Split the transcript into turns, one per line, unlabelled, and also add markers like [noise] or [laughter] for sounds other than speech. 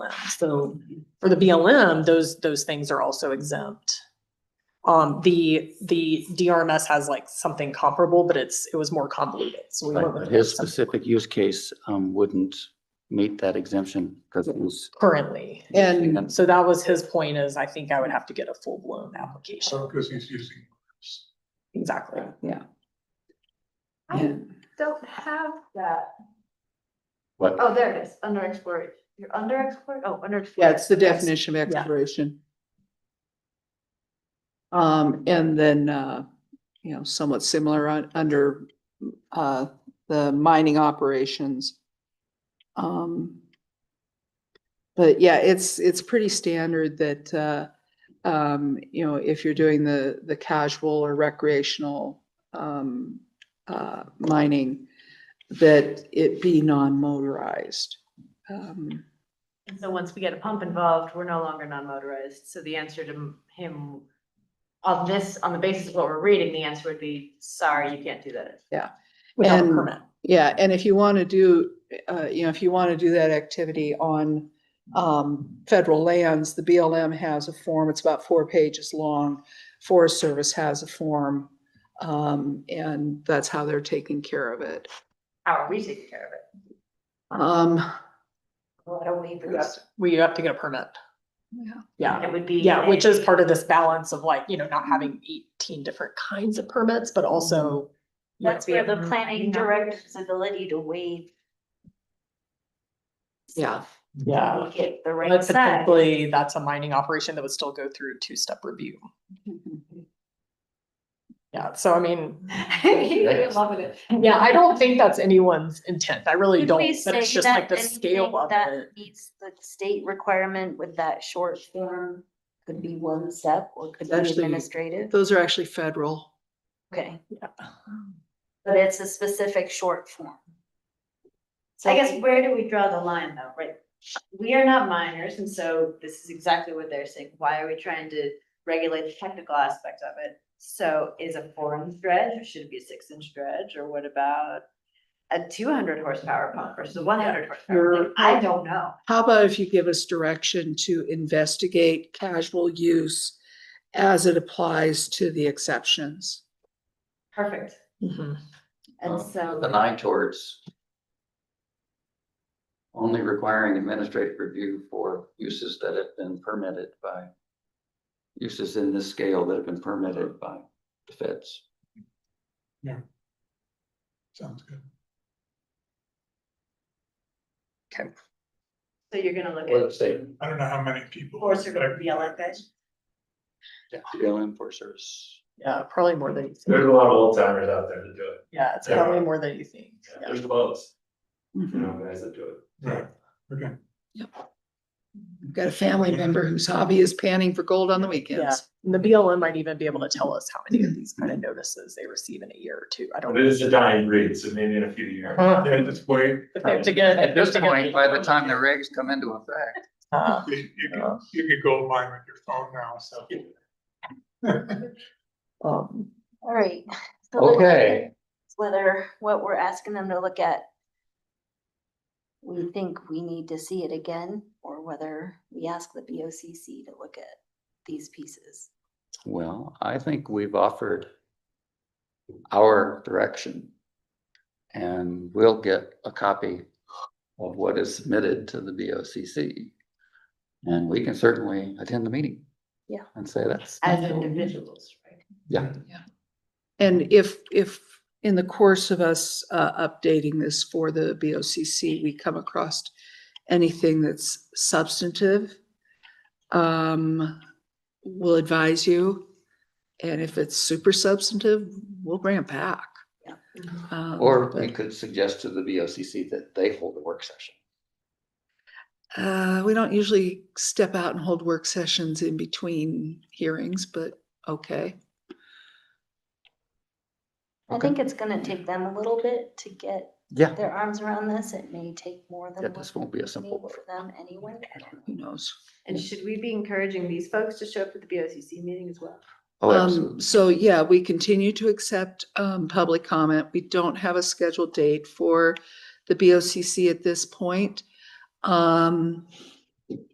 So for the BLM, those, those things are also exempt. Um, the, the DRMS has like something comparable, but it's, it was more convoluted, so we
Right,
went with.
but his
something
specific use case um wouldn't meet that exemption because it was.
Currently,
And
so that was his point is I think I would have to get a full-blown application,
Because he's using.
exactly.
yeah.
I don't have that.
What,
Oh, there it is, under explored. You're under explored, oh, under explored.
Yeah, it's the definition of exploration. Um, and then, uh, you know, somewhat similar on, under, uh, the mining operations. Um. But yeah, it's, it's pretty standard that, uh, um, you know, if you're doing the, the casual or recreational, um, uh, mining, that it be non-motorized. Um,
And So once we get a pump involved, we're no longer non-motorized. So the answer to him on this, on the basis of what we're reading, the answer would be, sorry, you can't do that.
Without a
And-
permit,
Yeah, and if you want to do, uh, you know, if you want to do that activity on, um, federal lands, the BLM has a form, it's about four pages long. Forest Service has a form, um, and that's how they're taking care of it.
How are we taking care of it?
Um,
What are we producing?
we have to get a permit,
yeah,
yeah.
It would be.
Yeah, which is part of this balance of like, you know, not having eighteen different kinds of permits, but also. you know,
That's where the
being-
planning director's ability to waive.
Yeah.
stuff
Yeah.
Make it the right
But
size.
typically, that's a mining operation that would still go through two-step review. Yeah, so I mean,
[laughs] You're loving it.
yeah, I don't think that's anyone's intent. I really
Could
don't.
we
But it's
say
just like
that
the
anything
scale of
that
it.
meets the state requirement with that short form? Could be one step or could be
Actually,
administrative,
those are actually federal.
okay,
Yeah.
but it's a specific short form. So
I guess where do we draw the line though, right? We are not minors, and so this is exactly what they're saying. Why are we trying to regulate the technical aspect of it? So is a four inch dredge, or should it be a six inch dredge, or what about a two hundred horsepower pump versus a one hundred horsepower? Like,
You're-
I don't know.
How about if you give us direction to investigate casual use as it applies to the exceptions?
Perfect.
Mhm.
And
um,
so,
The nine towards. Only requiring administrative review for uses that have been permitted by. Uses in this scale that have been permitted by the feds.
Sounds good.
so you're gonna look
Or the
at
state.
I don't know how many people.
Forest or BLM guys?
Yeah, BLM Forest Service.
Yeah, probably more than, you think.
There's a lot of old timers out there that do it.
yeah, it's
Yeah.
probably more than you think.
Yeah,
Yeah.
There's loads, you
Mm-hmm.
know, guys that do it.
Right, okay.
I've got a family member whose hobby is panning for gold on the
Yeah.
weekends.
And the BLM might even be able to tell us how many of these kind of notices they receive in a year or two. I don't.
But it is a dying breed, so maybe in a few years.
Uh-huh.
Yeah, just wait.
If they have to get-
At
if they
this
have to get-
point, by the time the regs come into effect,
Uh,
You you can, you can go mine with your phone now, so. [laughs]
um,
All right. so the-
okay.
Whether what we're asking them to look at. We think we need to see it again, or whether we ask the B O C C to look at these pieces.
Well, I think we've offered our direction. And we'll get a copy of what is submitted to the BOCC. And we can certainly attend the meeting.
Yeah.
And say that's.
As individuals, right?
Yeah,
And if, if in the course of us uh, updating this for the BOCC, we come across anything that's substantive, um, we'll advise you. And if it's super substantive, we'll bring it back.
Yeah.
Um,
or we
but,
could suggest to the BOCC that they hold a work session.
Uh, we don't usually step out and hold work sessions in between hearings, but okay.
I
Okay.
think it's gonna take them a little bit to get
Yeah,
their arms around this. It may take more than.
Yeah,
what
this won't be a
we
simple
need For them anyway. I don't know.
Who knows?
And should we be encouraging these folks to show up at the BOCC meeting as well?
oh,
Um,
absolutely.
so yeah, we continue to accept, um, public comment. We don't have a scheduled date for the BOCC at this point. Um,